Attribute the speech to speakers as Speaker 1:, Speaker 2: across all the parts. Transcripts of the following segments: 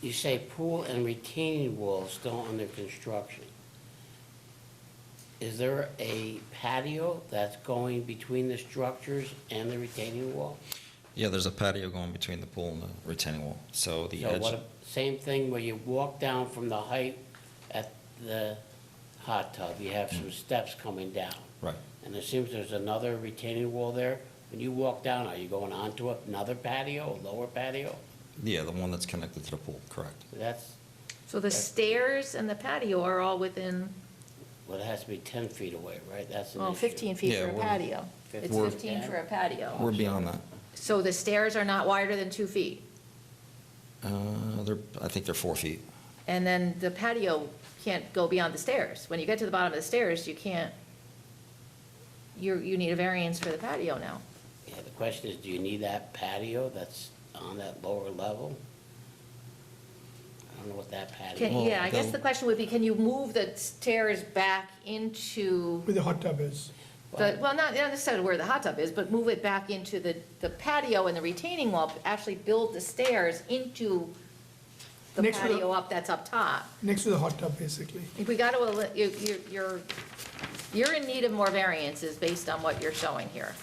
Speaker 1: you say pool and retaining wall still under construction. Is there a patio that's going between the structures and the retaining wall?
Speaker 2: Yeah, there's a patio going between the pool and the retaining wall, so the
Speaker 1: So
Speaker 2: edge.
Speaker 1: what, same thing where you walk down from the height at the hot tub, you have some steps coming down.
Speaker 2: Right.
Speaker 1: And it seems there's another retaining wall there. When you walk down, are you going onto another patio, a lower patio?
Speaker 2: Yeah, the one that's connected to the pool, correct.
Speaker 1: That's,
Speaker 3: So the stairs and the patio are all within,
Speaker 1: well, it has to be ten feet away, right? That's an
Speaker 3: well,
Speaker 1: issue.
Speaker 3: 15 feet
Speaker 2: Yeah,
Speaker 3: for a
Speaker 2: we're-
Speaker 3: patio. It's
Speaker 1: We're-
Speaker 3: 15 for a patio.
Speaker 2: We're beyond that.
Speaker 3: So the stairs are not wider than two feet.
Speaker 2: Uh, they're, I think they're four feet.
Speaker 3: And then the patio can't go beyond the stairs. When you get to the bottom of the stairs, you can't, you, you need a variance for the patio now.
Speaker 1: Yeah, the question is, do you need that patio that's on that lower level? I don't know what that
Speaker 3: Can,
Speaker 1: patio,
Speaker 2: Well,
Speaker 3: yeah, I guess
Speaker 2: the-
Speaker 3: the question would be, can you move the stairs back into
Speaker 4: Where the hot tub is.
Speaker 3: the, well, not not necessarily where the hot tub is, but move it back into the, the patio and the retaining wall, but actually build the stairs into the
Speaker 4: Next to the-
Speaker 3: patio up that's up top.
Speaker 4: Next to the hot tub, basically.
Speaker 3: If we got to, you're, you're, you're in need of more variances based on what you're showing here.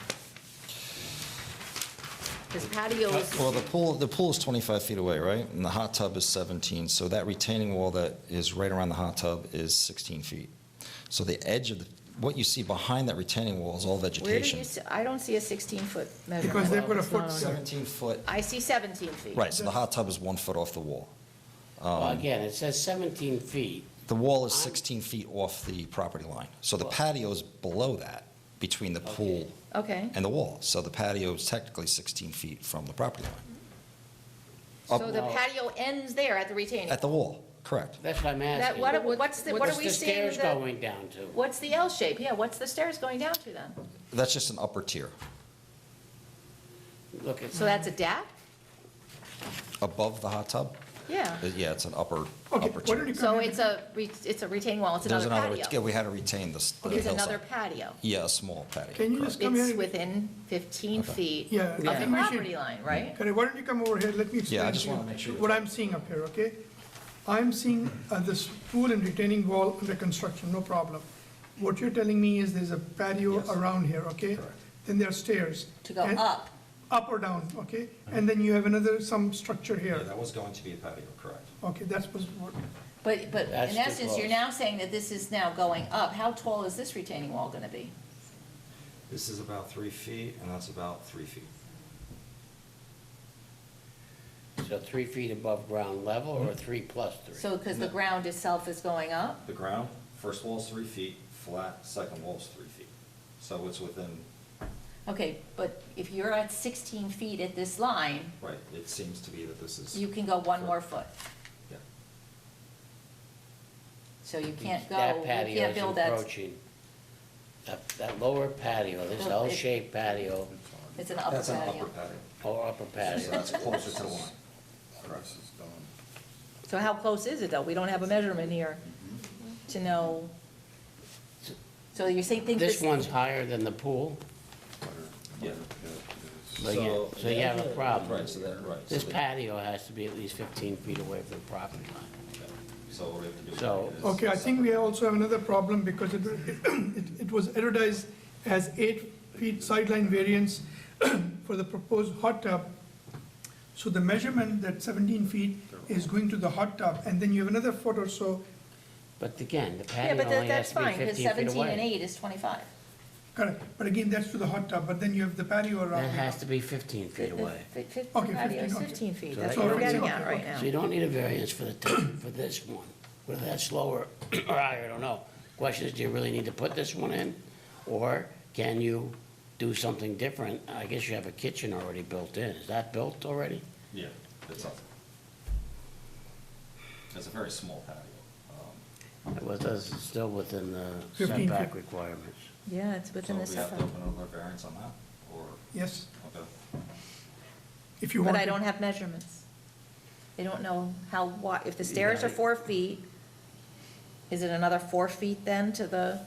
Speaker 3: Because patio is,
Speaker 2: Well, the pool, the pool is 25 feet away, right? And the hot tub is 17, so that retaining wall that is right around the hot tub is 16 feet. So the edge of, the what you see behind that retaining wall is all
Speaker 3: where do
Speaker 2: vegetation.
Speaker 3: you, see- I don't see a 16-foot measurement.
Speaker 4: Because they've got a
Speaker 3: It's not on-
Speaker 4: foot set.
Speaker 2: 17 foot,
Speaker 3: I see 17 feet.
Speaker 2: right, so the hot tub is one foot off the wall.
Speaker 1: well, again, it says seventeen feet.
Speaker 2: The wall is 16 feet off the property line. So the patio is below that, between the pool
Speaker 1: Okay.
Speaker 3: Okay.
Speaker 2: and the wall. So the patio is technically 16 feet from the property line,
Speaker 3: So the patio ends there at the retaining.
Speaker 2: at the wall, correct?
Speaker 1: That's what I'm
Speaker 3: That,
Speaker 1: asking.
Speaker 3: what, are- what's the, what are
Speaker 1: What's
Speaker 3: we
Speaker 1: the
Speaker 3: seeing?
Speaker 1: stairs
Speaker 3: the-
Speaker 1: going down to?
Speaker 3: What's the L shape? Yeah, what's the stairs going down to then?
Speaker 2: That's just an upper tier.
Speaker 1: Look, it's,
Speaker 4: Mm-hmm.
Speaker 3: So that's a deck?
Speaker 2: Above the hot tub,
Speaker 3: Yeah.
Speaker 2: uh, yeah, it's an upper,
Speaker 4: Okay,
Speaker 2: upper
Speaker 4: why don't
Speaker 2: tier.
Speaker 4: you
Speaker 3: So
Speaker 4: come in?
Speaker 3: it's a, re- it's a retaining wall, it's
Speaker 2: There's
Speaker 3: another
Speaker 2: another, yeah,
Speaker 3: patio.
Speaker 2: we had to retain this. the
Speaker 3: It's another
Speaker 2: hillside.
Speaker 3: patio.
Speaker 2: Yeah, a small patio.
Speaker 4: Can you
Speaker 2: correct.
Speaker 4: just come
Speaker 3: It's
Speaker 4: here?
Speaker 3: within 15
Speaker 2: Okay.
Speaker 3: feet
Speaker 4: Yeah,
Speaker 3: of
Speaker 4: I
Speaker 3: the
Speaker 4: think we should-
Speaker 3: property line, right?
Speaker 4: Correct, why don't you come over here, let me explain.
Speaker 2: Yeah, I just
Speaker 4: to you
Speaker 2: wanna make sure you're-
Speaker 4: What I'm seeing up here, okay? I'm seeing uh, this pool and retaining wall under construction, no problem. What you're telling me is there's a patio
Speaker 2: Yes.
Speaker 4: around here, okay?
Speaker 2: Correct.
Speaker 4: Then there are stairs.
Speaker 3: To go
Speaker 4: and-
Speaker 3: up.
Speaker 4: Up or down, okay? And then you have another, some structure here.
Speaker 2: was going to be a patio, correct.
Speaker 4: Okay, that's what's- what,
Speaker 3: But, but
Speaker 1: That's
Speaker 3: in
Speaker 1: too
Speaker 3: essence, you're
Speaker 1: close.
Speaker 3: now saying that this is now going up. How tall is this retaining wall going to be?
Speaker 2: This is about three feet, and that's about three feet.
Speaker 1: so three feet above ground level or three plus three?
Speaker 3: So, because the ground itself is going up?
Speaker 2: The ground, first wall's three feet, flat, second wall's three feet. So it's within,
Speaker 3: Okay, but if you're at 16 feet at this line,
Speaker 2: right, it seems to be that this is.
Speaker 3: you can go one more foot.
Speaker 2: Yeah.
Speaker 3: So you can't go,
Speaker 1: That
Speaker 3: you
Speaker 1: patio
Speaker 3: can't
Speaker 1: is
Speaker 3: build that,
Speaker 1: encroaching. That, that lower patio, this
Speaker 3: Well, it-
Speaker 1: L-shaped patio
Speaker 3: it's an upper patio.
Speaker 1: or upper patio.
Speaker 2: closer to the line. Correct.
Speaker 3: So how close is it though? We don't have a measurement here to know. So you're saying, think this.
Speaker 1: This one's higher than the pool,
Speaker 2: Yeah.
Speaker 1: but you, so you have a problem.
Speaker 2: Right, so that, right. so
Speaker 1: This
Speaker 2: the-
Speaker 1: patio has to be at least fifteen feet away from the property line.
Speaker 2: So what we have to do.
Speaker 1: So-
Speaker 2: is-
Speaker 4: Okay, I think we also have another problem because it, it- it was advertised as eight feet sideline variance for the proposed hot tub. So the measurement that 17 feet is going to the hot tub, and then you have another foot or so,
Speaker 1: But again, the
Speaker 3: Yeah,
Speaker 1: patio
Speaker 3: but that-
Speaker 1: only has
Speaker 3: that's
Speaker 1: to be
Speaker 3: fine, because
Speaker 1: fifteen feet
Speaker 3: 17 and
Speaker 1: away.
Speaker 3: 8 is 25.
Speaker 4: correct, but again, that's to the hot tub, but then you have the patio around
Speaker 1: That has
Speaker 4: it.
Speaker 1: to be fifteen feet away.
Speaker 3: Fi- fi- fi-
Speaker 4: Okay,
Speaker 3: patio is
Speaker 4: 15, okay.
Speaker 3: 15 feet,
Speaker 1: So
Speaker 3: that's
Speaker 1: that
Speaker 3: what we're
Speaker 1: you're-
Speaker 3: getting
Speaker 4: Okay,
Speaker 3: at
Speaker 4: okay,
Speaker 3: right
Speaker 4: okay.
Speaker 1: So you
Speaker 3: now.
Speaker 1: don't need a variance for the, t- for this one, whether that's lower or higher, I don't know. Question is, do you really need to put this one in? Or can you do something different? I guess you have a kitchen already built in. Is that built already?
Speaker 2: Yeah, it's up. It's a very small patio. um,
Speaker 1: Well, that's still within the
Speaker 4: 15 feet.
Speaker 1: setback requirements.
Speaker 3: Yeah, it's
Speaker 2: So
Speaker 3: within the
Speaker 2: we have
Speaker 3: setback.
Speaker 2: to open another variance on that, or,
Speaker 4: Yes,
Speaker 2: okay.
Speaker 4: if you want.
Speaker 3: But I
Speaker 4: to.
Speaker 3: don't have measurements. They don't know how, wide. if the stairs are
Speaker 1: Right.
Speaker 3: four feet, is it another four feet then to the?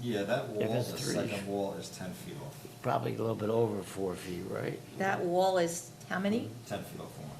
Speaker 2: Yeah, that wall,
Speaker 1: it's
Speaker 2: the
Speaker 1: three.
Speaker 2: second wall is ten feet off,
Speaker 1: Probably a little bit over four feet, right?
Speaker 3: That wall is how many?
Speaker 2: ten feet off the line.